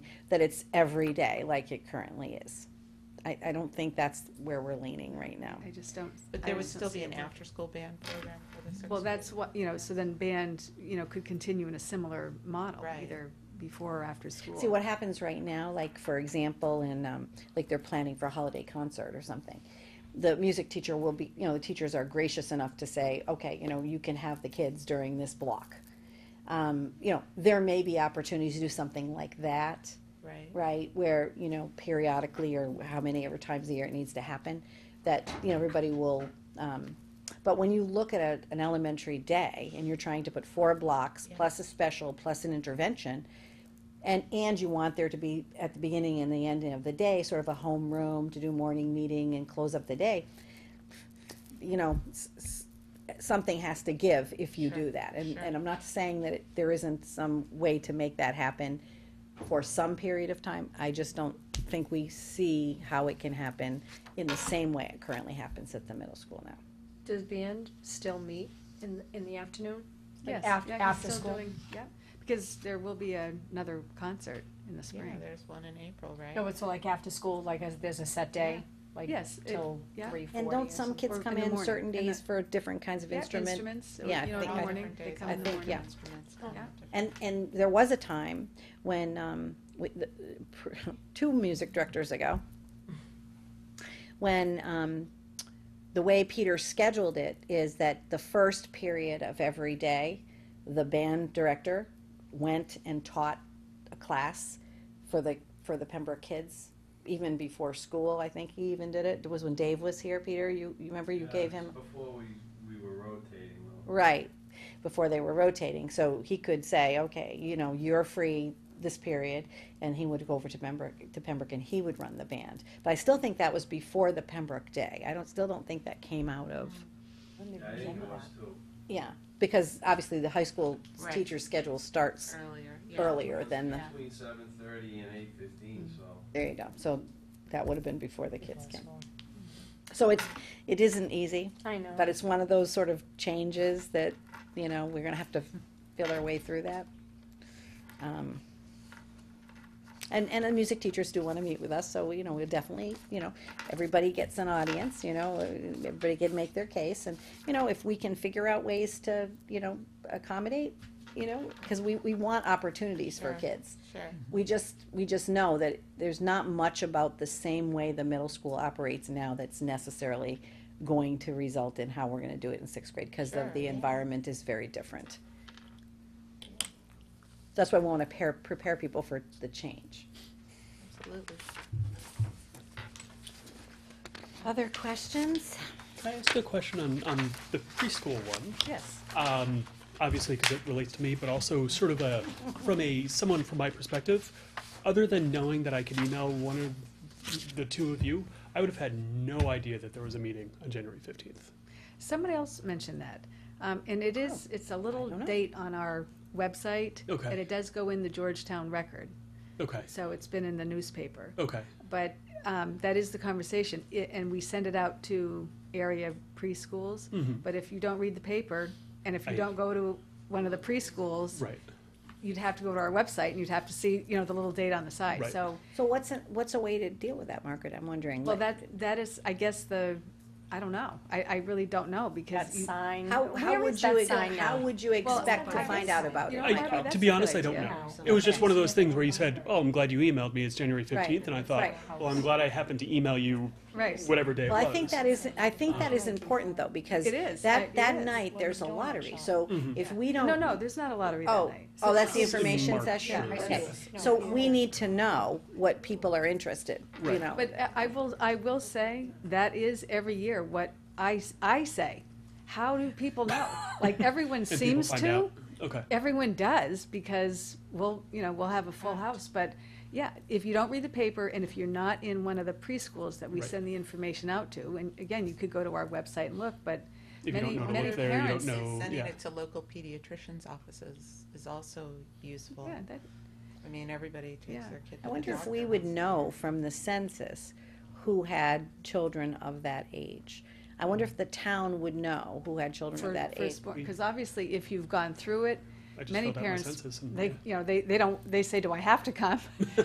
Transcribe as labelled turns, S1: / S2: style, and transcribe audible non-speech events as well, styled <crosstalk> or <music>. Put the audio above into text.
S1: that it's every day like it currently is. I, I don't think that's where we're leaning right now.
S2: I just don't.
S3: But
S2: I
S3: there would
S2: just
S3: still
S2: don't
S3: be
S2: see
S3: an
S2: it work.
S3: after-school band program for the sixth
S2: Well, that's
S3: grade.
S2: what, you know, so then band, you know, could continue in a similar model,
S3: Right.
S2: either before or after school.
S1: See what happens right now, like for example, in um, like they're planning for a holiday concert or something. The music teacher will be, you know, the teachers are gracious enough to say, okay, you know, you can have the kids during this block. Um, you know, there may be opportunities to do something like that,
S3: Right.
S1: right? Where you know, periodically or how many ever times a year it needs to happen, that you know everybody will. Um, but when you look at a, an elementary day and you're trying to put four blocks
S3: Yeah.
S1: plus a special plus an intervention, and, and you want there to be, at the beginning and the ending of the day, sort of a homeroom to do morning meeting and close up the day. You know, s- s- something has to give if you do
S3: Sure,
S1: that. And,
S3: sure.
S1: and I'm not saying that it- there isn't some way to make that happen for some period of time. I just don't think we see how it can happen in the same way it currently happens at the middle school now.
S4: Does band still meet in, in the afternoon? Like
S2: Yes,
S4: af-
S2: yeah, he's
S4: After
S2: still
S4: school?
S2: doing- Yeah, because there will be another concert in the
S3: Yeah,
S2: spring.
S3: there's one in April, right?
S4: No, it's like after school, like as- there's a set day, like
S2: Yes, it-
S4: till
S2: yeah.
S4: three forty.
S1: And don't some kids
S2: Or
S1: come
S2: in the
S1: in
S2: morning,
S1: certain
S2: in the-
S1: days for different kinds of
S2: Yeah,
S1: instruments?
S2: Instruments, or, you
S1: Yeah, I
S2: know, in
S1: think
S2: the
S1: I-
S2: morning, they come
S1: I
S2: in the
S1: think, yeah.
S2: morning.
S3: Instruments.
S2: Yeah.
S1: And, and there was a time when, um, with the, <laughs> pr- two music directors ago, when, um, the way Peter scheduled it is that the first period of every day, the band director went and taught a class for the, for the Pembroke kids, even before school, I think he even did it. It was when Dave was here, Peter, you, you remember you
S5: Yeah,
S1: gave
S5: it's
S1: him?
S5: Before we, we were rotating. though.
S1: Right, before they were rotating, so he could say, okay, you know, you're free this period, and he would go over to Pembroke, to Pembroke, and he would run the band. But I still think that was before the Pembroke Day, I don't, still don't think that came out of,
S5: Yeah, I didn't know us till
S1: yeah, because obviously the high school
S3: Right.
S1: teacher's schedule starts
S3: Earlier. yeah.
S1: earlier than the,
S3: Yeah.
S5: between seven thirty and eight fifteen, so.
S1: there you go, so that would have been before the kids came. So it's, it isn't easy,
S4: I know.
S1: but it's one of those sort of changes that, you know, we're gonna have to feel our way through that. Um, And, and the music teachers do wanna meet with us, so, you know, we'll definitely, you know, everybody gets an audience, you know, everybody can make their case, and, you know, if we can figure out ways to, you know, accommodate, you know, cause we, we want opportunities for
S3: Sure.
S1: kids
S3: Sure.
S1: we just, we just know that there's not much about the same way the middle school operates now that's necessarily going to result in how we're gonna do it in sixth grade, because
S3: Sure,
S1: the, the
S3: yeah.
S1: environment is very different. That's why we wanna pair, prepare people for the change.
S3: Absolutely.
S1: Other questions?
S6: Can I ask a question on, on the preschool one?
S1: Yes.
S6: Um, obviously, because it relates to me, but also sort of a from a someone from my perspective. Other than knowing that I could email one of the two of you, I would have had no idea that there was a meeting on January fifteenth.
S2: Somebody else mentioned that, um, and it is, it's a little
S1: don't know.
S2: date on our website.
S6: Okay.
S2: And it does go in the Georgetown Record,
S6: Okay.
S2: so it's been in the newspaper.
S6: Okay.
S2: But um, that is the conversation, I and we send it out to area preschools.
S6: Mhm.
S2: But if you don't read the paper, and if you
S6: I-
S2: don't go to one of the preschools,
S6: Right.
S2: you'd have to go to our website and you'd have to see, you know, the little date on the side.
S6: Right.
S2: So,
S1: So what's, a- what's a way to deal with that, Margaret? I'm wondering.
S2: well,
S1: like,
S2: that that is, I guess the, I don't know. I, I really don't know because you,
S4: sign.
S1: How, how
S4: Where
S1: would
S4: is
S1: you,
S4: that
S1: ex-
S4: sign
S1: how
S4: now?
S1: would you expect to
S4: I
S1: find
S4: guess-
S1: out about
S2: you
S1: it?
S2: know,
S6: I,
S2: Abby,
S6: uh,
S2: that's a
S6: to be honest,
S2: good
S6: I don't
S2: idea.
S6: know. It was just one of those things where you said, "Oh, I'm glad you emailed me. It's January fifteenth," and I thought,
S1: Right.
S6: "Well, I'm glad I happened to email you
S2: right.
S6: whatever day it
S1: Well, I
S6: was."
S1: think that is, I think that is important though, because
S2: It is. I-
S1: that,
S2: it
S1: that
S2: is.
S1: night, there's a
S4: Well,
S1: lottery,
S4: donut
S1: so
S6: Mhm.
S1: if we don't.
S2: No, no, there's not a lottery that
S1: Oh,
S2: night.
S1: oh, that's the
S6: It's in
S1: information
S6: March,
S1: session?
S6: sure.
S1: Okay,
S4: Yeah.
S1: so we need to know what people are interested, you
S6: Right.
S1: know?
S2: But I- I will, I will say, that is every year what I, s- I say. How do people know? Like,
S6: <laughs>
S2: everyone
S6: And people
S2: seems
S6: find
S2: to.
S6: out. Okay.
S2: Everyone does because we'll, you know, we'll have a full house, but yeah, if you don't read the paper and if you're not in one of the preschools that we
S6: Right.
S2: send the information out to, and again, you could go to our website and look, but
S6: If you
S2: many,
S6: don't know to
S2: many
S6: look there, you
S2: parents.
S6: don't know.
S3: Sending
S6: Yeah.
S3: it to local pediatricians' offices is also useful.
S2: Yeah, that,
S3: I mean, everybody takes
S2: Yeah.
S3: their kid
S1: I
S3: to the
S1: wonder if
S3: doctor
S1: we would
S3: once.
S1: know from the census who had children of that age. I wonder if the town would know who had children of
S2: for
S1: that age.
S2: firstborn, because obviously if you've gone through it,
S6: I just
S2: many
S6: filled out my
S2: parents,
S6: census and-
S2: they,
S6: yeah.
S2: you know, they, they don't, they say, do I have to come?